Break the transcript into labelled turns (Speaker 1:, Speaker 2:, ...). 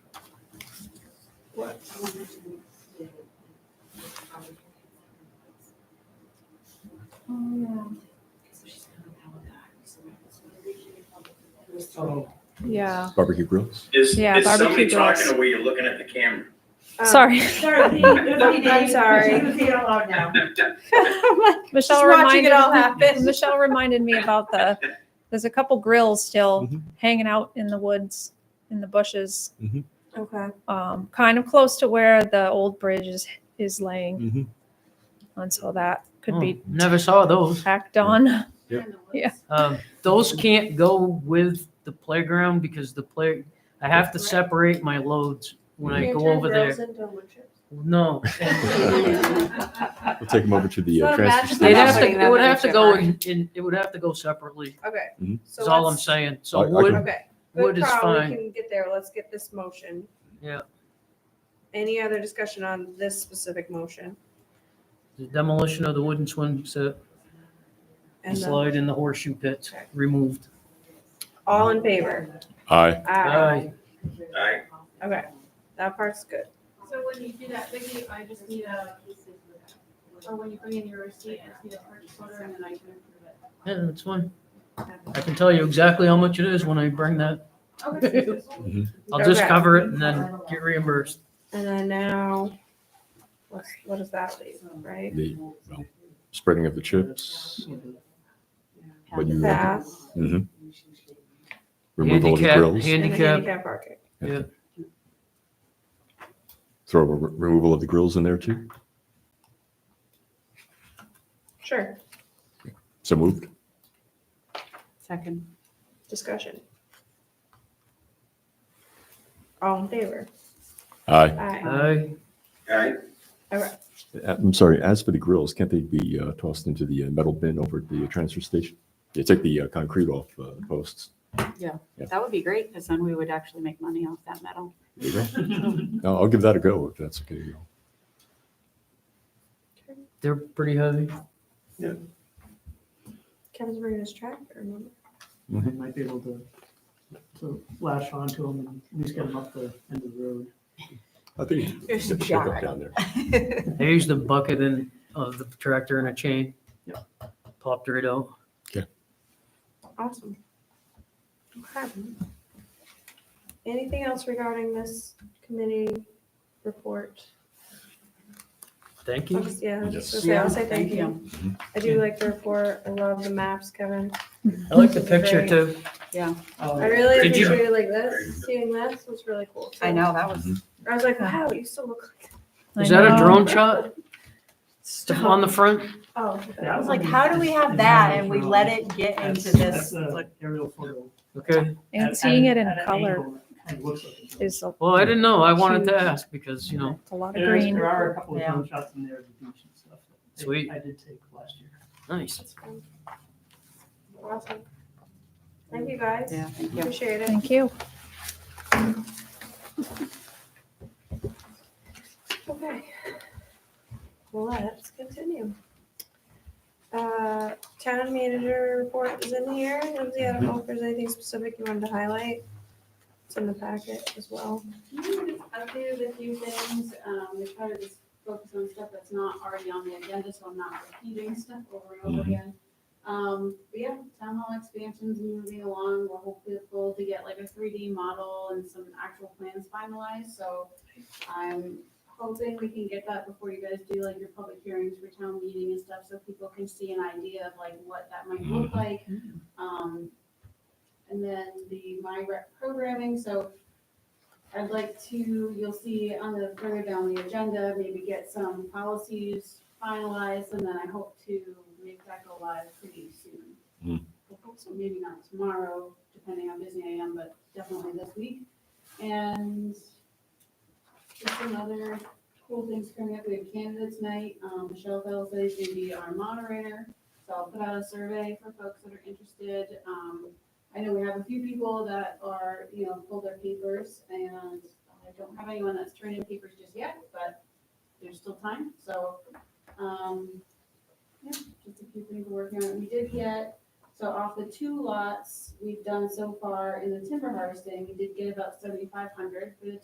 Speaker 1: What? Oh,
Speaker 2: Yeah.
Speaker 3: Barbecue grills.
Speaker 4: Is,
Speaker 2: Yeah,
Speaker 4: is somebody
Speaker 2: barbecue grills.
Speaker 4: talking to where you're looking at the camera?
Speaker 5: Um,
Speaker 2: Sorry.
Speaker 5: Sorry, Dee, nobody
Speaker 2: I'm
Speaker 5: did.
Speaker 2: sorry.
Speaker 5: She was here alone now.
Speaker 2: Michelle
Speaker 5: Just watching
Speaker 2: reminded
Speaker 5: it all happen.
Speaker 2: Michelle reminded me about the there's a couple grills still
Speaker 3: Mhm.
Speaker 2: hanging out in the woods in the bushes,
Speaker 5: Okay.
Speaker 2: um, kind of close to where the old bridge is is laying,
Speaker 3: Mm-hmm.
Speaker 2: and so that could
Speaker 6: Oh,
Speaker 2: be
Speaker 6: Never saw
Speaker 7: Oh.
Speaker 6: those.
Speaker 2: tacked on.
Speaker 6: Um, those can't go with the playground because the play, I have to separate my loads when I go over there. No.
Speaker 3: We'll take them over to the uh,
Speaker 5: So
Speaker 3: transfer
Speaker 5: imagine
Speaker 6: They'd
Speaker 3: station.
Speaker 6: have to, it would have to go in, in, it would have to go separately.
Speaker 5: Okay.
Speaker 3: Mhm.
Speaker 5: So
Speaker 6: That's all I'm
Speaker 5: let's-
Speaker 6: saying.
Speaker 3: I-
Speaker 6: So
Speaker 3: I
Speaker 6: wood,
Speaker 3: can-
Speaker 5: Okay.
Speaker 6: wood
Speaker 5: Good
Speaker 6: is
Speaker 5: call, we
Speaker 6: fine.
Speaker 5: can get there. Let's get this motion.
Speaker 6: Yeah.
Speaker 5: Any other discussion on this specific motion?
Speaker 6: The demolition of the wooden swing set,
Speaker 5: And then,
Speaker 6: slide in the horseshoe pits
Speaker 5: Okay.
Speaker 6: removed.
Speaker 5: all in favor?
Speaker 3: Aye.
Speaker 5: Aye.
Speaker 6: Aye.
Speaker 4: Aye.
Speaker 5: Okay, that part's good.
Speaker 8: So when you do that, Vicky, I just need a, or when you bring in your receipt, I just need a purchase order and then I can approve it.
Speaker 6: Yeah, that's fine. I can tell you exactly how much it is when I bring that. I'll just
Speaker 5: Okay.
Speaker 6: cover it and then get reimbursed.
Speaker 5: And then now, what's, what does that leave, right?
Speaker 3: The well, spreading of the chips, but you
Speaker 5: That.
Speaker 3: mhm. removal of the
Speaker 6: Handicap,
Speaker 3: grills,
Speaker 5: And the
Speaker 6: handicap,
Speaker 5: handicap parking.
Speaker 3: throw a re- removal of the grills in there too.
Speaker 5: Sure,
Speaker 3: So moved.
Speaker 8: Second.
Speaker 5: discussion. All in favor?
Speaker 3: Aye.
Speaker 5: Aye.
Speaker 6: aye.
Speaker 4: Aye.
Speaker 3: Uh, I'm sorry. As for the grills, can't they be uh, tossed into the uh, metal bin over at the uh, transfer station? They take the uh, concrete off uh, posts.
Speaker 8: That would be great, because then we would actually make money off that metal.
Speaker 3: There you go. no, I'll give that a go if that's okay. You know.
Speaker 6: They're pretty heavy.
Speaker 5: Kevin's bringing his tractor, remember?
Speaker 7: I might be able to, to lash onto them and at least get them up the end of the road.
Speaker 3: I think
Speaker 8: There's some
Speaker 3: you should
Speaker 8: jar.
Speaker 3: go down there.
Speaker 6: I used a bucket and, of the tractor and a chain.
Speaker 7: Yeah.
Speaker 6: Popped right out.
Speaker 5: Awesome. Okay. Anything else regarding this committee report?
Speaker 6: Thank
Speaker 5: I'll
Speaker 6: you.
Speaker 5: just- Yeah, I was just gonna
Speaker 3: Yes.
Speaker 5: say, I'll say thank you. I do like the report. I love the maps, Kevin.
Speaker 6: I like the picture too.
Speaker 5: I
Speaker 7: Uh,
Speaker 5: really
Speaker 6: Oh. Did you-
Speaker 5: appreciated like this, seeing this was really cool. too.
Speaker 8: I know, that was.
Speaker 5: I was like, wow, you still look like.
Speaker 2: I
Speaker 6: Is that
Speaker 2: know.
Speaker 6: a drone shot? The- On the front?
Speaker 5: Oh.
Speaker 7: Yeah.
Speaker 5: that
Speaker 8: I was like, how do we have that and we let it get
Speaker 7: that's-
Speaker 8: into this?
Speaker 7: That's a aerial photo.
Speaker 6: Okay.
Speaker 2: And
Speaker 7: At- at
Speaker 2: seeing
Speaker 7: an-
Speaker 2: it in
Speaker 7: at an
Speaker 2: color
Speaker 7: angle, it Kind of looks like. a drone.
Speaker 2: is a,
Speaker 6: Well, I didn't know. I wanted to ask because, you know,
Speaker 2: a lot of
Speaker 7: There is-
Speaker 2: green.
Speaker 7: There are a couple of
Speaker 8: Yeah.
Speaker 7: drone shots in there of the beach and stuff. that I-
Speaker 6: Sweet.
Speaker 7: I did take last year.
Speaker 6: nice.
Speaker 5: That's fun. Awesome. Thank you, guys.
Speaker 8: Yeah, thank you.
Speaker 5: Appreciate it.
Speaker 2: Thank you.
Speaker 5: Okay. Well, let's continue. Uh, Town manager report is in here. Lindsay, I don't know if there's anything specific you wanted to highlight. It's in the packet as well.
Speaker 8: Updated a few things, um, we try to just focus on stuff that's not already on the agenda, so I'm not repeating stuff over and
Speaker 6: Mm-hmm.
Speaker 8: over
Speaker 3: Mhm.
Speaker 8: again. Um, but yeah, town hall expansion's moving along, we're hopefully able to get like a three D model and some actual plans finalized, so I'm hoping we can get that before you guys do like your public hearings for town meeting and stuff, so people can see an idea of like what that might look like. Um, and then the My Rec programming, so I'd like to, you'll see on the further down the agenda, maybe get some policies finalized, and then I hope to make that go live pretty
Speaker 3: Hmm.
Speaker 8: soon. I hope So maybe not tomorrow, depending how busy I am, but definitely this week. And just some other cool things coming up, we have candidates night, um, Michelle Bell says she's gonna be our moderator, so I'll put out a survey for folks that are interested, um, I know we have a few people that are, you know, pulled their papers and I don't have anyone that's turned in papers just yet, but there's still time, so, um, yeah, just a few things we're working on. We did get, so off the two lots we've done so far in the timber harvesting, we did get about seventy-five hundred for the